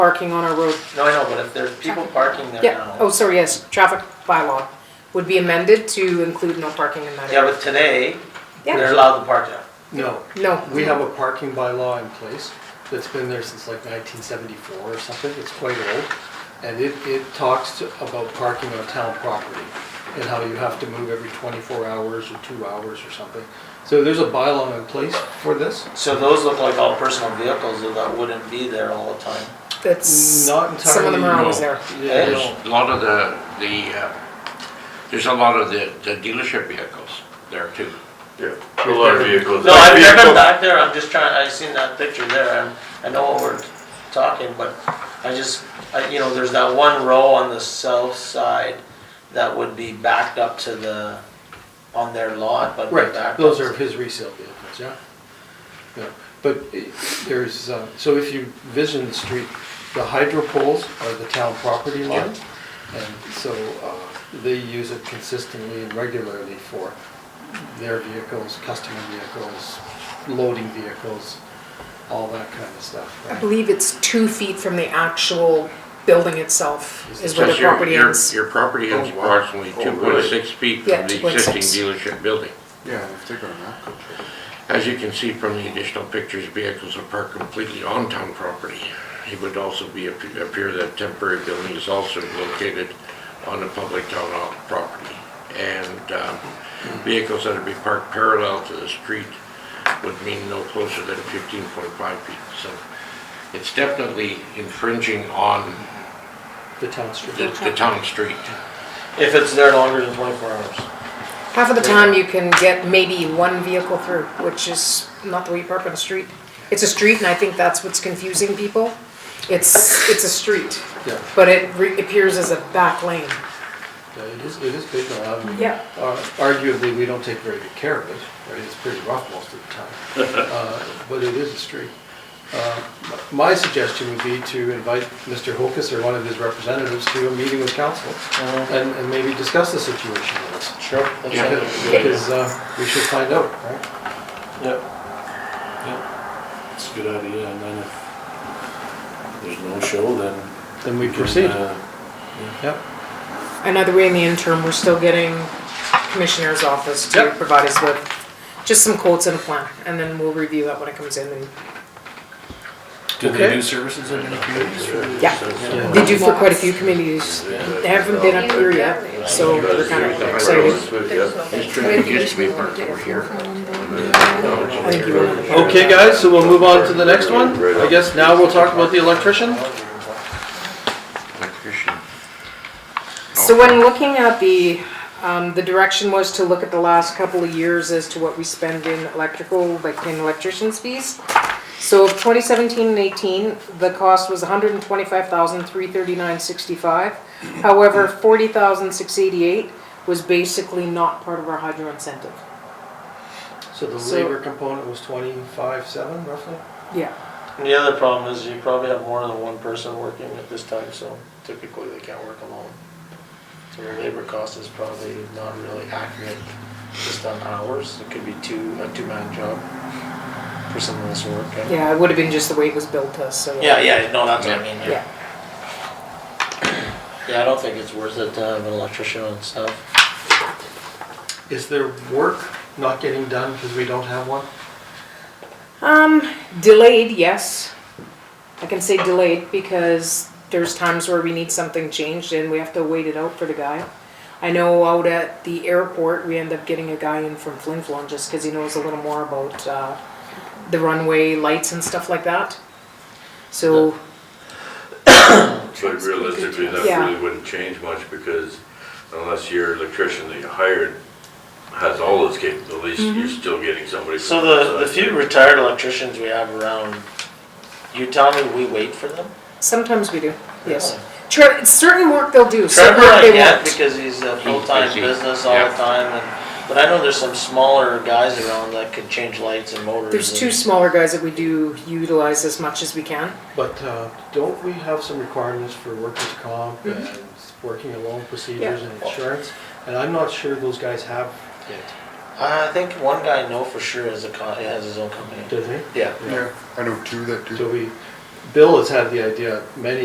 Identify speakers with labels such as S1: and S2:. S1: parking on our road.
S2: No, I know, but if there's people parking there
S1: Yeah,
S2: now.
S1: oh, sorry, yes, traffic bylaw would be amended to include no parking in that
S2: Yeah,
S1: area.
S2: but today,
S1: Yeah.
S2: they're allowed to park there.
S3: No,
S1: No.
S3: we have a parking bylaw in place that's been there since like 1974 or something, it's quite old. And it, it talks to- about parking on town property and how you have to move every 24 hours or two hours or something. So there's a bylaw in place for this?
S2: So those look like all personal vehicles so that wouldn't be there all the time.
S1: That's,
S3: Not
S1: some of them are
S3: entirely,
S1: always
S4: no.
S1: there.
S3: Yeah,
S2: Yes.
S3: no.
S4: A lot of the, the, uh, there's a lot of the the dealership vehicles there too.
S5: Yeah, a lot of vehicles.
S2: No, I've never
S5: Vehicle-
S2: back there, I'm just trying, I seen that picture there, and I know what we're talking, but I just, I, you know, there's that one row on the south side that would be backed up to the, on their lot, but.
S3: Right,
S2: backed
S3: those
S2: up-
S3: are his resale vehicles, yeah. Yeah, but i- there's, uh, so if you vision the street, the hydro poles are the town property line. And so uh, they use it consistently and regularly for their vehicles, customer vehicles, loading vehicles, all that kind of stuff.
S1: I
S3: right?
S1: believe it's two feet from the actual building itself is where the
S4: Because your-
S1: property
S4: your-
S1: ends.
S4: Your property is
S5: Oh, wow.
S4: approximately
S5: Oh,
S4: two point six feet
S1: Yeah,
S4: from the existing
S1: 2.6.
S4: dealership building.
S5: Yeah, if they're gonna not go.
S4: As you can see from the additional pictures, vehicles are parked completely on town property. It would also be, appear that temporary building is also located on the public town hall property. And um, vehicles that would be parked parallel to the street would mean no closer than 15.5 feet. So it's definitely infringing on
S3: The town street.
S4: the the town street.
S2: If it's there longer than twenty-four hours.
S1: Half of the time, you can get maybe one vehicle through, which is not the way you park on a street. It's a street, and I think that's what's confusing people. It's, it's a street,
S3: Yeah,
S1: but it re- appears as a back lane.
S3: yeah, it is, it is Bicknell Avenue.
S1: Yeah.
S3: Uh, Arguably, we don't take very good care of it, right? It's pretty rough most of the time, Uh, but it is a street. Uh, My suggestion would be to invite Mr. Hokus or one of his representatives to a meeting with council and and maybe discuss the situation with us.
S2: Sure.
S4: Yeah.
S3: Because uh, we should find out, right?
S2: Yep,
S6: It's a good idea, and then if there's no show, then.
S3: Then we
S6: can,
S3: proceed.
S6: uh,
S3: Yep.
S1: Another way in the interim, we're still getting commissioner's office to
S3: Yep.
S1: provide us with just some quotes and a plan, and then we'll review that when it comes in. And
S6: Do they
S3: Okay.
S6: do services in any communities? or is
S1: Yeah.
S6: it-
S3: Yeah.
S1: They do for quite a few communities. They haven't been up here yet, so we're kind of excited.
S4: This street used to be parked over here. uh, Now it's over
S1: I think you
S4: here.
S1: want to.
S3: Okay, guys, so we'll move on to the next one. I guess now we'll talk about the electrician.
S4: Electrician.
S1: So when looking at the, um, the direction was to look at the last couple of years as to what we spend in electrical, like in electrician's fees. So of twenty seventeen and eighteen, the cost was 125,339.65. However, forty thousand six eighty-eight was basically not part of our hydro incentive.
S3: So the
S1: So-
S3: labor component was 25.7 roughly?
S1: Yeah.
S2: and the other problem is you probably have more than one person working at this time, so typically they can't work alone. So the labor cost is probably not really accurate, just on hours, it could be two, a two-man job for some of this work. and-
S1: Yeah, it would have been just the way it was built to us, so.
S2: Yeah, yeah, no, that's what I
S4: Yeah.
S2: mean, yeah.
S1: Yeah,
S2: Yeah, I don't think it's worth it to have an electrician and stuff.
S3: Is there work not getting done because we don't have one?
S1: Um, delayed, yes. I can say delayed because there's times where we need something changed and we have to wait it out for the guy. I know out at the airport, we end up getting a guy in from Flin Flon just because he knows a little more about, uh, the runway lights and stuff like that. So,
S5: But realistically, that
S1: Yeah.
S5: really wouldn't change much because unless your electrician that you hired has all those capabilities, you're still getting somebody. from
S2: So the, the
S5: outside.
S2: few retired electricians we have around, you tell me we wait for them?
S1: sometimes we do, yes. Tre- certain work they'll do, certain
S2: Trevor,
S1: work
S2: I
S1: they
S2: get
S1: won't.
S2: because he's a full-time
S4: busy,
S2: business all
S4: yeah.
S2: the time, and, but I know there's some smaller guys around that could change lights and motors.
S1: There's two
S2: and-
S1: smaller guys that we do utilize as much as we can.
S3: But uh, don't we have some requirements for workers' comp and working alone procedures and insurance? And I'm not sure those guys have it,
S2: I think one guy I know for sure is a, co- has his own company.
S3: do they?
S2: Yeah.
S7: Yeah, I know two that do.
S3: So we, Bill has had the idea many